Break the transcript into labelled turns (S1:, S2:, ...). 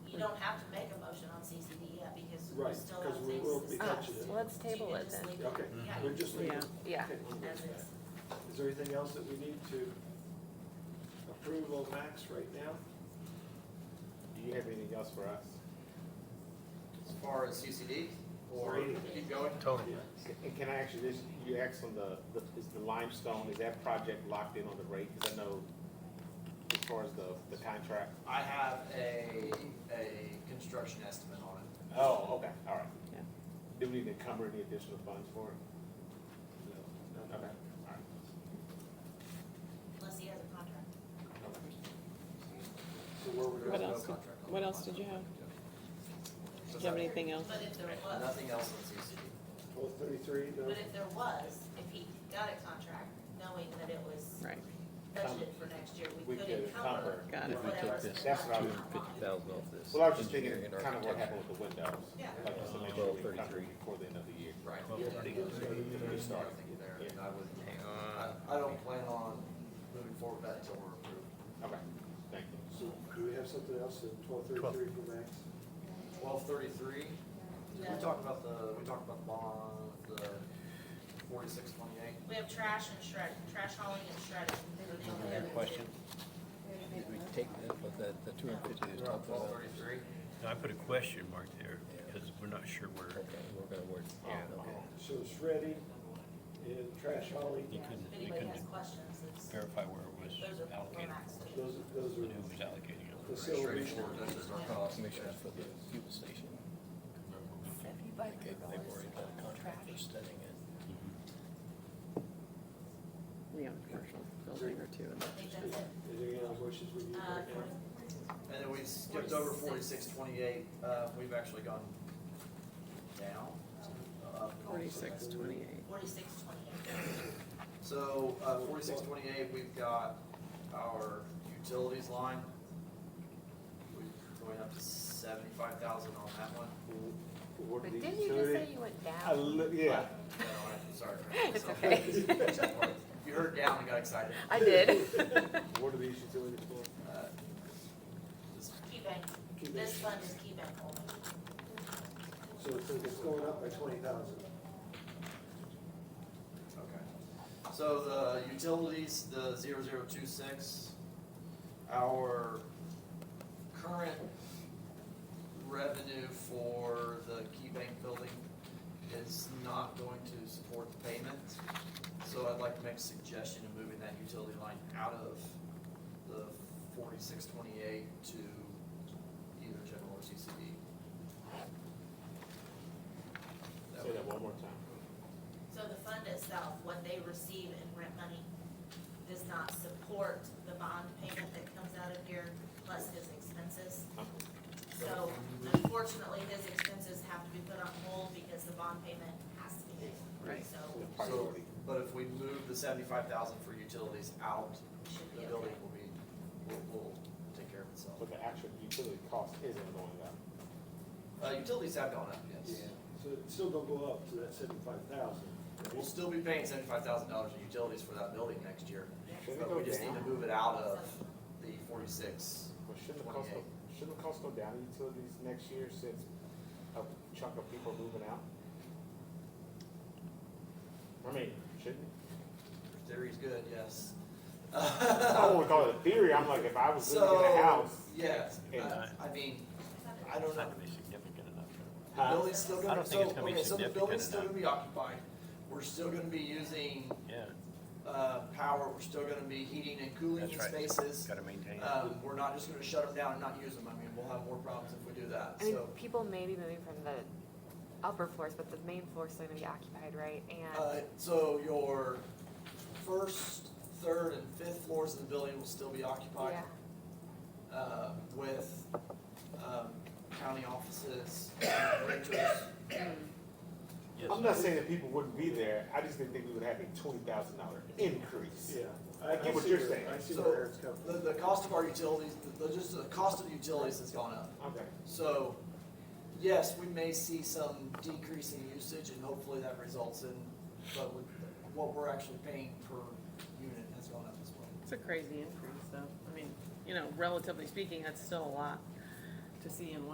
S1: so we're
S2: Right,
S1: still
S2: because
S1: on
S2: we
S1: things
S2: will
S1: to
S2: be
S1: discuss.
S2: touching it.
S3: well, let's
S1: So you
S3: table
S1: can
S3: it
S1: just
S3: then.
S1: leave
S2: Okay, Mm-hmm.
S1: Yeah.
S2: we're just leaving.
S3: Yeah. Yeah.
S2: Okay, we'll
S1: As
S2: leave
S1: is.
S2: that. Is there anything else that we need to approve on Max right now?
S4: Do you have anything else for us?
S5: As far as CCD
S2: Or
S5: or
S2: anything.
S5: keep going?
S2: Yeah.
S4: And can I actually just, you asked on the, the, is the limestone, is that project locked in on the rate? Because I know as far as the, the contract.
S5: I have a, a construction estimate on it.
S4: Oh, okay, all right.
S3: Yeah.
S4: Do we need to encumber any additional funds for it? No. Okay, all
S1: Unless he has a contract.
S2: So where we're
S5: There is
S2: going,
S5: no
S6: else did-
S5: contract on
S6: what
S5: the
S6: else did you
S5: contract.
S6: Do you have anything else?
S1: But if there was,
S5: Nothing else on CCD.
S2: twelve thirty-three, no?
S1: but if there was, if he got a contract, knowing that it was
S6: Right,
S1: budgeted for next year, we
S4: We
S1: could
S4: could
S1: encumber
S4: encumber.
S6: got it.
S7: If we
S1: whatever.
S7: take this,
S4: That's what I
S7: two
S4: was-
S7: hundred fifty thousand off this.
S4: Well, I was just thinking
S7: engineering and
S4: kind of what
S7: architecture.
S4: happened with the windows.
S1: Yeah.
S4: Like, just to make sure we encumber
S7: 1233.
S4: it before the end of the year.
S5: Right.
S7: Well,
S5: Yeah,
S7: pretty
S5: no,
S7: good. Uh,
S5: there's no- There's nothing there, and I would, I, I don't plan on moving forward with that until we're approved.
S4: Okay, thank you.
S2: So do we have something else in twelve thirty-three for Max?
S5: Twelve thirty-three, we
S1: No.
S5: talked about the, we talked about the bond, the forty-six twenty-eight.
S1: We have trash and shred, trash hauling and shredding. Those are the other
S7: Another
S1: two.
S7: question, did we take that, was that the two hundred fifty is
S5: Twelve
S7: talked about?
S5: thirty-three.
S8: Now, I put a question mark there because we're not sure where.
S7: Okay, we're gonna work, okay.
S2: So shredding and trash hauling,
S8: You couldn't,
S1: If
S8: you
S1: anybody has
S8: couldn't
S1: questions, it's, those
S8: verify where it was
S1: are for
S8: allocated
S1: Max. to do.
S2: those, those
S8: and who was
S2: are facility.
S8: allocating it.
S5: Straightforward, that's just our cost.
S7: Commission for the fuel station. They gave, they worried about a contract for studying it.
S6: we own a commercial building or two in
S1: I think that's it.
S2: Is there any other wishes we need
S1: Uh,
S2: right now?
S5: And then we skipped over forty-six twenty-eight, uh, we've actually gone down. uh, up.
S6: forty-six twenty-eight.
S1: forty-six twenty-eight.
S5: So, uh, forty-six twenty-eight, we've got our utilities line. We're going up to seventy-five thousand on that one.
S2: For what
S3: But
S2: the
S3: didn't you just
S2: utility-
S3: say you went
S4: I
S3: down?
S4: li- yeah.
S5: No, I- Uh, Sorry.
S3: It's okay.
S5: You heard down and got excited.
S3: I did.
S4: What are these utilities for?
S5: Uh, just-
S1: Key bank,
S2: Key
S1: this
S2: bank.
S1: fund is key bank only.
S2: So it's, it's going up by twenty thousand.
S5: Okay. So the utilities, the zero zero two six, our current revenue for the Key Bank building is not going to support the payment. So I'd like to make a suggestion of moving that utility line out of the forty-six twenty-eight to either general or CCD. That
S4: Say
S5: would-
S4: that one more time.
S1: So the fund itself, what they receive in rent money, does not support the bond payment that comes out of here, plus his expenses. So unfortunately, his expenses have to be put on hold because the bond payment has to be made.
S6: Right.
S1: So
S4: The
S5: So,
S4: priority.
S5: but if we move the seventy-five thousand for utilities out,
S1: it should
S5: the
S1: be
S5: building
S1: okay.
S5: will be, will, will take care of itself.
S4: But the actual utility cost isn't going up.
S5: Uh, utilities have gone up, yes.
S2: So it's still gonna go up to that seventy-five thousand.
S5: We'll still be paying seventy-five thousand dollars in utilities for that building next year,
S4: Should it
S5: but we
S4: go
S5: just need to
S4: down?
S5: move it out of the forty-six.
S4: Well, shouldn't the cost go,
S5: 28.
S4: shouldn't the cost go down in utilities next year since a chunk of people are moving out? I mean, shouldn't it?
S5: Your Theory's good, yes.
S4: I don't wanna call it a theory, I'm like, if I was living in a
S5: So,
S4: house.
S5: yes,
S4: And
S5: I, I mean, I don't
S8: It's
S5: know.
S8: not gonna be significant enough.
S5: The
S4: Huh?
S5: building's still
S8: I
S5: gonna,
S8: don't think
S5: so,
S8: it's gonna be
S5: okay, so the
S8: significant
S5: building's still
S8: enough.
S5: gonna be occupied. We're still gonna be using,
S8: Yeah,
S5: uh, power, we're still gonna be heating and cooling
S8: That's
S5: in
S8: right.
S5: spaces.
S8: gotta maintain. it.
S5: Um, we're not just gonna shut them down and not use them, I mean, we'll have more problems if we do that,
S9: I mean,
S5: so.
S9: people may be moving from the upper floors, but the main floor's still gonna be occupied, right?
S5: Uh,
S9: And
S5: so your first, third, and fifth floors of the building will still be occupied.
S9: yeah,
S5: uh, with um, county offices, renters.
S8: Yes.
S4: I'm not saying that people wouldn't be there, I just didn't think we would have a twenty thousand dollar increase.
S2: Yeah.
S4: I get what
S2: see
S4: you're
S2: where-
S4: saying.
S2: I see
S5: So-
S2: where Eric's coming from.
S5: The, the cost of our utilities, the, the- just the cost of the utilities has gone up.
S4: Okay.
S5: So, yes, we may see some decrease in usage and hopefully that results in, but with, what we're actually paying per unit has gone up as well.
S6: It's a crazy increase, though. I mean, you know, relatively speaking, that's still a lot to see in one.